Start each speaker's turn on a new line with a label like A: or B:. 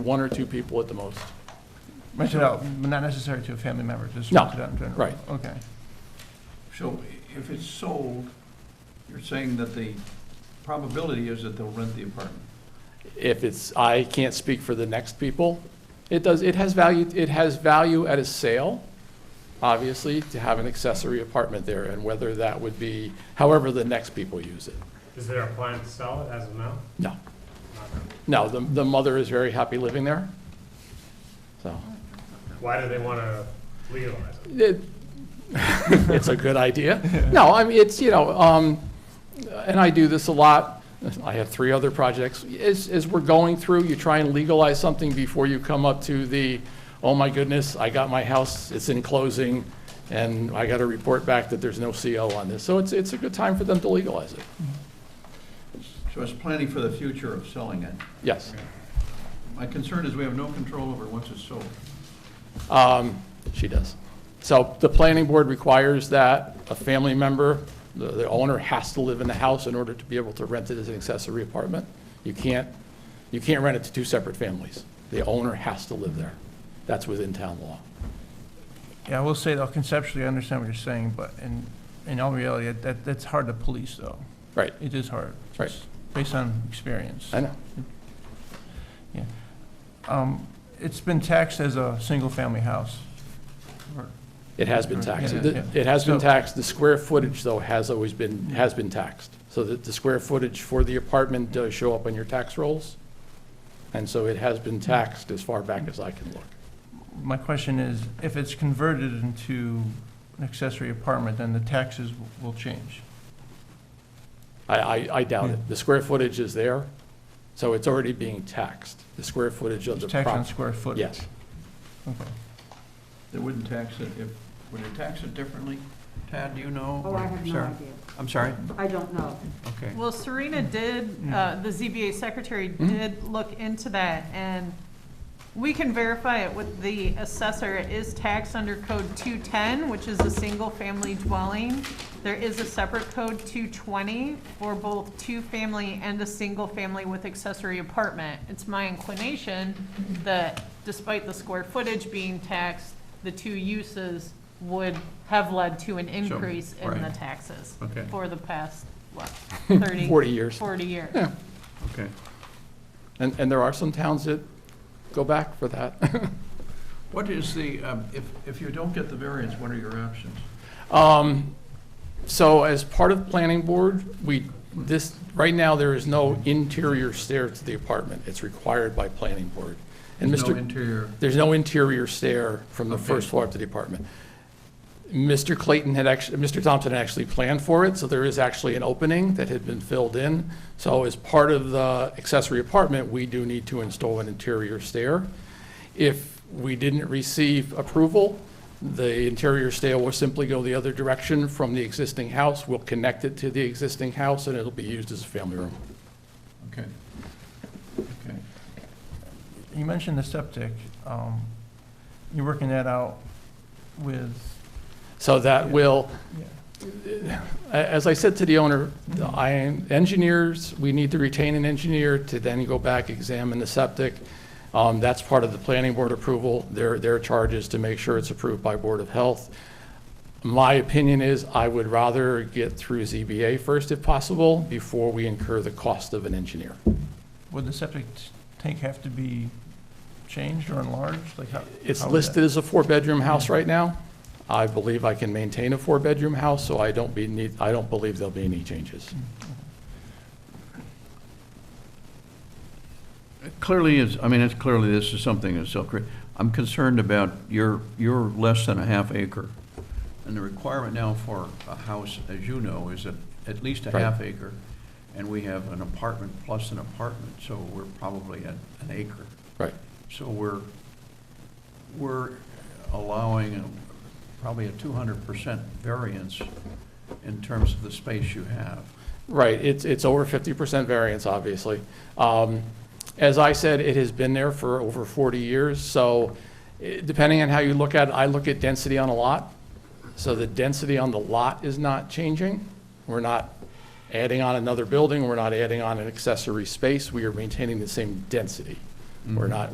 A: one or two people at the most.
B: Rent it out, but not necessary to a family member, just
A: No,
B: rent it out in general?
A: right.
B: Okay.
C: So if it's sold, you're saying that the probability is that they'll rent the apartment?
A: If it's, I can't speak for the next people. It does, it has value, it has value at a sale, obviously, to have an accessory apartment there, and whether that would be, however the next people use it.
D: Is there a plan to sell it as of now?
A: No. No, the, the mother is very happy living there. So,
D: Why do they want to legalize it?
A: it, it's a good idea. No, I mean, it's, you know, um, and I do this a lot. I have three other projects. As, as we're going through, you try and legalize something before you come up to the, oh my goodness, I got my house, it's in closing, and I got to report back that there's no CO on this. So it's, it's a good time for them to legalize it.
C: So it's planning for the future of selling it.
A: Yes.
C: My concern is we have no control over once it's sold.
A: Um, She does. So the planning board requires that a family member, the the owner has to live in the house in order to be able to rent it as an accessory apartment. You can't, you can't rent it to two separate families. The owner has to live there. That's within town law.
B: Yeah, I will say though, conceptually, I understand what you're saying, but in, in all reality, that- that, that's hard to police though.
A: Right.
B: It is hard.
A: Right.
B: just Based on experience.
A: I know.
B: Um, It's been taxed as a single-family house. Or-
A: It has been taxed.
B: Yeah, yeah.
A: It has been
B: So-
A: taxed. The square footage, though, has always been, has been taxed. So that the square footage for the apartment does show up on your tax rolls. And so it has been taxed as far back as I can look.
B: My question is, if it's converted into an accessory apartment, then the taxes w- will change.
A: I, I, I doubt
B: Hmm.
A: it. The square footage is there, so it's already being taxed, the square footage of
B: It's
A: the
B: taxed on
A: property.
B: square footage.
A: Yes.
B: Okay.
C: They wouldn't tax it if, would they tax it differently? Tad, do you know?
E: Oh, I have no
C: Sarah?
E: idea.
C: I'm sorry?
E: I don't know.
C: Okay. Mm.
F: Well, Serena did, uh, the ZBA secretary did look into that, and we can verify it with the assessor. It is taxed under code 210, which is a single-family dwelling. There is a separate code 220 for both two-family and a single-family with accessory apartment. It's my inclination that despite the square footage being taxed, the two uses would have led to an increase in the
C: right.
F: taxes
C: Okay.
F: for the past, what, 30?
A: 40 years.
F: 40 years.
A: Yeah.
C: Okay.
A: And, and there are some towns that go back for that.
C: What is the, um, if, if you don't get the variance, what are your options?
A: Um, So as part of planning board, we, this, right now, there is no interior stair to the apartment. It's required by planning board. And
C: There's
A: Mr.
C: No interior,
A: There's no interior stair from the
C: Okay.
A: first floor up to the apartment. Mr. Clayton had actually, Mr. Thompson had actually planned for it, so there is actually an opening that had been filled in. So as part of the accessory apartment, we do need to install an interior stair. If we didn't receive approval, the interior stair will simply go the other direction from the existing house. We'll connect it to the existing house, and it'll be used as a family room.
C: okay. Okay.
B: You mentioned the septic. Um, You're working that out with,
A: So that will,
B: yeah.
A: A- As I said to the owner, the I- engineers, we need to retain an engineer to then go back, examine the septic. Um, That's part of the planning board approval. Their, their charge is to make sure it's approved by Board of Health. My opinion is I would rather get through ZBA first if possible before we incur the cost of an engineer.
B: Would the septic t- tank have to be changed or enlarged? Like how?
A: It's
B: how would that-
A: listed as a four-bedroom house right now. I believe I can maintain a four-bedroom house, so I don't be, need- I don't believe there'll be any changes.
B: Mm.
C: Clearly, it's, I mean, it's clearly, this is something that's self I'm concerned about your, your less than a half acre. And the requirement now for a house, as you know, is at, at least a
A: Right.
C: half acre. And we have an apartment plus an apartment, so we're probably at an acre.
A: Right.
C: So we're, we're allowing a- probably a two hundred percent variance in terms of the space you have.
A: Right, it's, it's over fifty percent variance, obviously. Um, As I said, it has been there for over forty years, so eh, depending on how you look at it, I look at density on a lot. So the density on the lot is not changing. We're not adding on another building, we're not adding on an accessory space, we are maintaining the same density. We're not,